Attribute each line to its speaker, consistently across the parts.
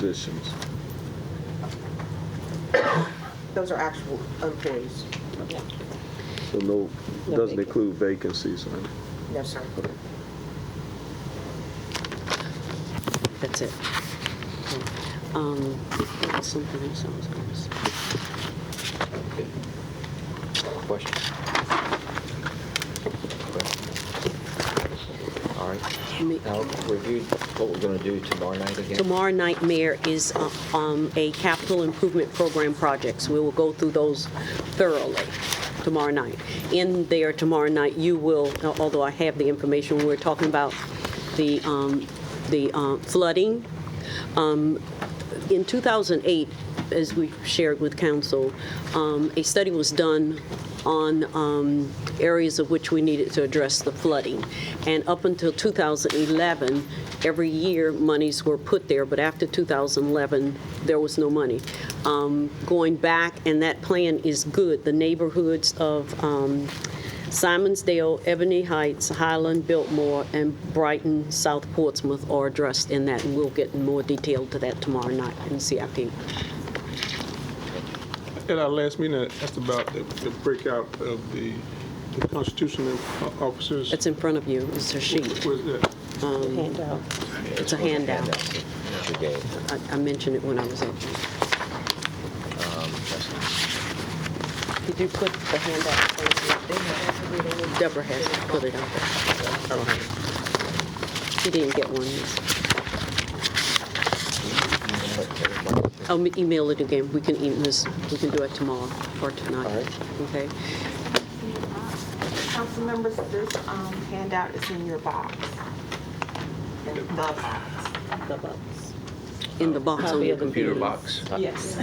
Speaker 1: positions.
Speaker 2: Those are actual employees.
Speaker 1: So no,
Speaker 3: No
Speaker 1: doesn't
Speaker 3: vacancies.
Speaker 1: include vacancies, right?
Speaker 2: No, sir.
Speaker 3: That's it. Um, there was something else I was gonna say.
Speaker 4: Question? All right.
Speaker 3: Me-
Speaker 4: Now, review what we're going to do tomorrow night again.
Speaker 3: Tomorrow night, Mayor, is uh, um, a capital improvement program projects. We will go through those thoroughly tomorrow night. In there tomorrow night, you will, although I have the information, we're talking about the um, the uh, flooding. Um, In 2008, as we shared with council, um, a study was done on um, areas of which we needed to address the flooding. And up until 2011, every year, monies were put there, but after 2011, there was no money. Um, Going back, and that plan is good, the neighborhoods of um, Simonsdale, Ebony Heights, Highland, Biltmore, and Brighton, South Portsmouth are addressed in that, and we'll get more detail to that tomorrow night in CIP.
Speaker 5: At our last meeting, I asked about the the breakout of the the constitutional o- officers.
Speaker 3: It's in front of you, it's a sheet,
Speaker 5: Was that-
Speaker 3: handout. It's a
Speaker 4: What the
Speaker 3: handout.
Speaker 4: that you gave.
Speaker 3: I I mentioned it when I was up. Did you put the handout? Deborah has put it up there.
Speaker 5: I don't have it.
Speaker 3: She didn't get one. miss. I'll m- email it again. We can e- miss- we can do it tomorrow or
Speaker 4: All
Speaker 3: tonight.
Speaker 4: right.
Speaker 3: Okay?
Speaker 2: Council members, this um, handout is in your box. In the box.
Speaker 3: In the box on your computer.
Speaker 2: Yes.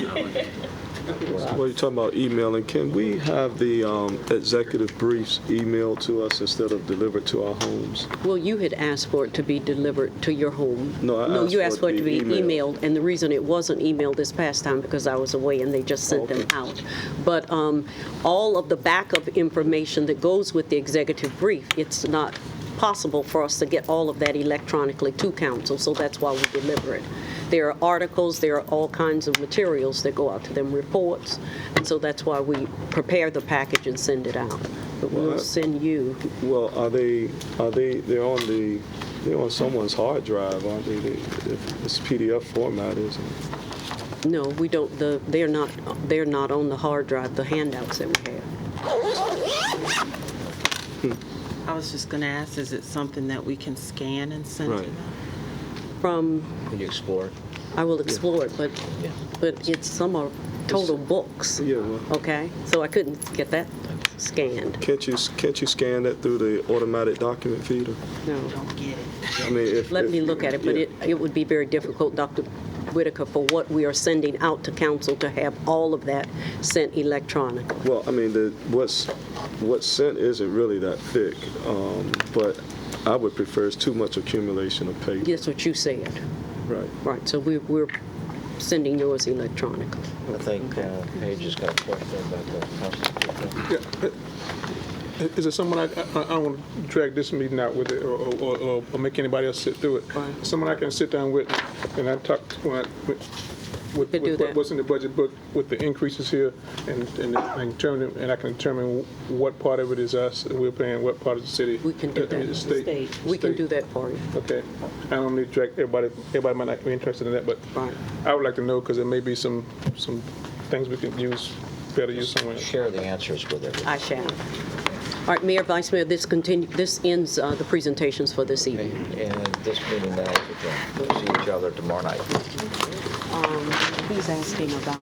Speaker 1: Well, you're talking about emailing. Can we have the um, executive briefs emailed to us instead of delivered to our homes?
Speaker 3: Well, you had asked for it to be delivered to your home.
Speaker 1: No, I
Speaker 3: you asked for it to be emailed, and the reason it wasn't emailed this past time, because I was away and they just sent them out. But um, all of the backup information that goes with the executive brief, it's not possible for us to get all of that electronically to council, so that's why we deliver it. There are articles, there are all kinds of materials that go out to them, reports, and so that's why we prepare the package and send it out. But we'll
Speaker 1: Well, I-
Speaker 3: send you.
Speaker 1: Well, are they, are they, they're on the, they're on someone's hard drive, aren't they? They- if It's PDF format, isn't it?
Speaker 3: No, we don't, the, they're not, they're not on the hard drive, the handouts that we have.
Speaker 6: I was just going to ask, is it something that we can scan and send to
Speaker 1: Right.
Speaker 6: them?
Speaker 3: From,
Speaker 4: Can you explore?
Speaker 3: I will explore it, but,
Speaker 4: Yeah.
Speaker 3: but it's, some are total books.
Speaker 1: Yeah, well-
Speaker 3: Okay, so I couldn't get that scanned,
Speaker 1: Can't you, can't you scan that through the automatic document feeder?
Speaker 3: no.
Speaker 6: Don't get it.
Speaker 1: I mean, if.
Speaker 3: Let
Speaker 1: if-
Speaker 3: me look at it, but
Speaker 1: yeah.
Speaker 3: it, it would be very difficult, Dr. Whitaker, for what we are sending out to council to have all of that sent electronically.
Speaker 1: Well, I mean, the, what's, what's sent isn't really that thick, um, but I would prefer it's too much accumulation of paper.
Speaker 3: That's what you said,
Speaker 1: Right.
Speaker 3: right, so we, we're sending yours electronically.
Speaker 4: I think uh, Paige has got a question about the constitution.
Speaker 5: Yeah, i- Is it someone, I, I I don't want to drag this meeting out with it or, or- or, or make anybody else sit through it. Someone I can sit down with and I talk, when I- with, with
Speaker 3: Could do
Speaker 5: with what-
Speaker 3: that.
Speaker 5: what's in the budget book, with the increases here and, and I can determine, and I can determine what part of it is us, and we're paying, what part of the city.
Speaker 3: We can do
Speaker 5: uh, uh,
Speaker 3: that.
Speaker 5: State.
Speaker 3: We can
Speaker 5: state.
Speaker 3: do that for you.
Speaker 5: Okay, I don't need to direct everybody, everybody might not be interested in that, but
Speaker 3: Right.
Speaker 5: I would like to know, because there may be some, some things we could use, better use somewhere.
Speaker 4: Share the answers with everyone.
Speaker 3: I shall. All right, Mayor, Vice Mayor, this continue, this ends uh, the presentations for this
Speaker 4: Okay,
Speaker 3: evening.
Speaker 4: And this meeting now is adjourned. We'll see each other tomorrow night.
Speaker 3: He's asking about.